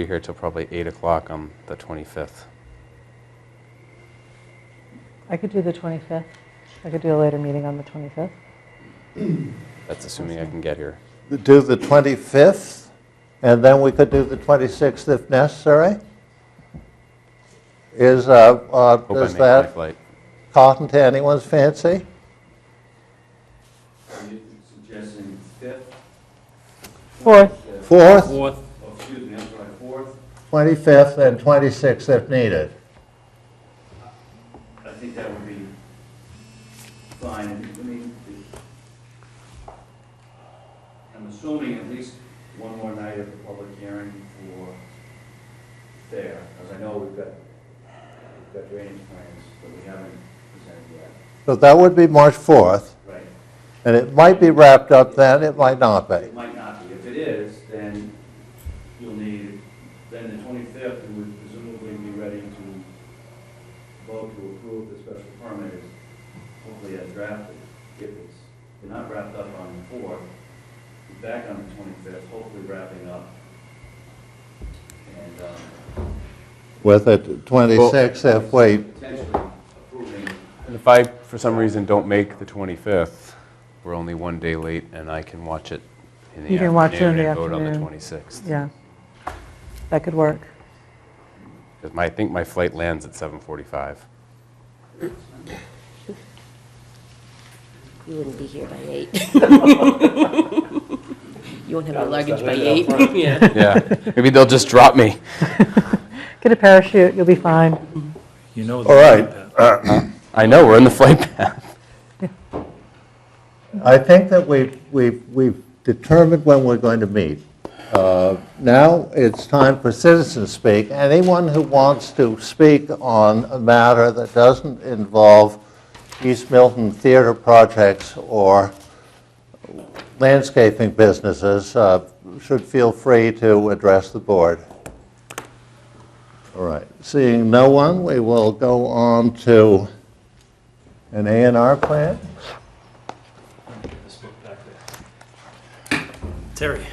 Be here till probably 8 o'clock on the 25th. I could do the 25th. I could do a later meeting on the 25th. That's assuming I can get here. do the 25th, and then we could do the 26th if necessary? Is, uh, uh, Hope I does make my that flight. cotton to anyone's fancy? Are you suggesting fifth, 4th, 4th, Fourth, or excuse me, I'm sorry, fourth? 25th, and 26th if needed. I think that would be fine, I mean, it- I'm assuming at least one more night of the public hearing for there, because I know we've got, we've got drainage plans that we haven't presented yet. But that would be March 4th, Right. and it might be wrapped up then, it might not be. It might not be, if it is, then you'll need, then the twenty-fifth, you would presumably be ready to vote to approve the special permit, as hopefully as drafted, if it's, if not wrapped up on the fourth, be back on the twenty-fifth, hopefully wrapping up. And, um, With the 26th if we, potentially approving, And if I, for some reason, don't make the 25th, we're only one day late, and I can watch it in the You can watch it in afternoon the and vote on the afternoon. 26th. yeah. That could work. Because I think my flight lands at 7:45. You wouldn't be here by eight. You won't have your luggage by eight. Yeah. Yeah, maybe they'll just drop me. Get a parachute, you'll be fine. you know. all right. I know, we're in the flight path. I think that we've, we've, we've determined when we're going to meet. Uh, Now, it's time for citizen speak. Anyone who wants to speak on a matter that doesn't involve East Milton theater projects or landscaping businesses uh, should feel free to address the board. All right, seeing no one, we will go on to an A and R plan. Terry.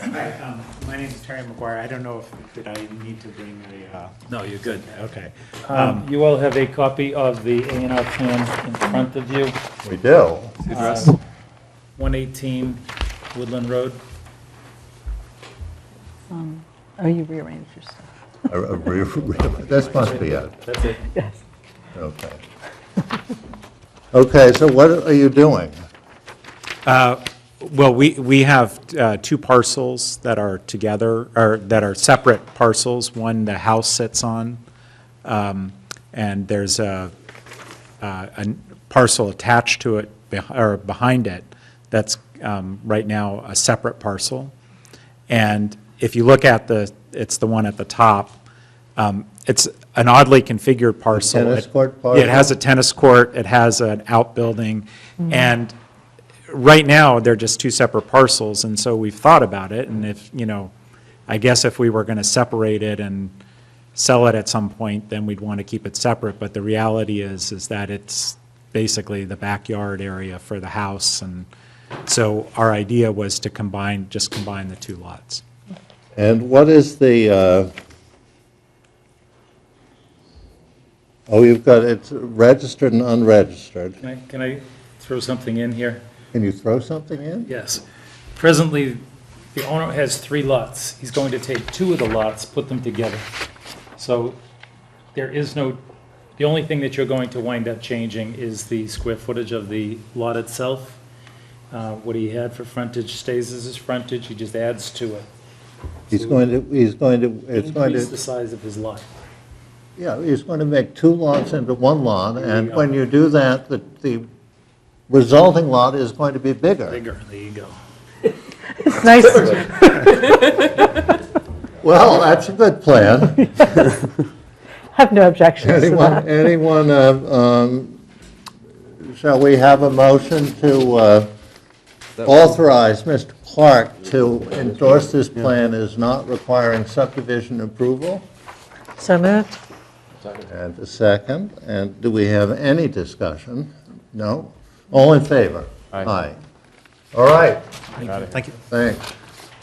Hi, um, my name is Terry McGuire. I don't know if, did I need to bring a, uh, No, you're good. okay. Um, You all have a copy of the A and R plan in front of you. We do. Uh, 118 Woodland Road. Oh, you rearranged your stuff. A- a re- re- This must be it, That's it. Yes. okay. Okay, so what are you doing? Well, we, we have uh, two parcels that are together, or that are separate parcels. One the house sits on, um, and there's a, uh, a parcel attached to it, beh- or behind it, that's um, right now a separate parcel. And if you look at the, it's the one at the top, um, it's an oddly configured parcel. tennis It- court yeah, It has parcel? a tennis court, it has an outbuilding, and right now, they're just two separate parcels, and so we've thought about it, and if, you know, I guess if we were gonna separate it and sell it at some point, then we'd wanna keep it separate, but the reality is, is that it's basically the backyard area for the house, and so our idea was to combine, just combine the two lots. And what is the, uh, oh, you've got, it's registered and unregistered. Can I- Can I throw something in here? Can you throw something in? Yes. Presently, the owner has three lots. He's going to take two of the lots, put them together. So there is no, the only thing that you're going to wind up changing is the square footage of the lot itself. Uh, What he had for frontage stays as his frontage, he just adds to it. He's going to, he's going to, it's going Increase the to, size of his lot. yeah, he's going to make two lots into one lot, and when you do that, the, the resulting lot is going to be bigger. Bigger, there you go. It's nice, Well, that's a good plan. have no objections to Anyone, that. anyone, uh, um, shall we have a motion to uh, authorize Mr. Clark to endorse this plan as not requiring subdivision approval? So moved? And a second, and do we have any discussion? No? All in favor? Aye. Aye. All right, Got it. thanks.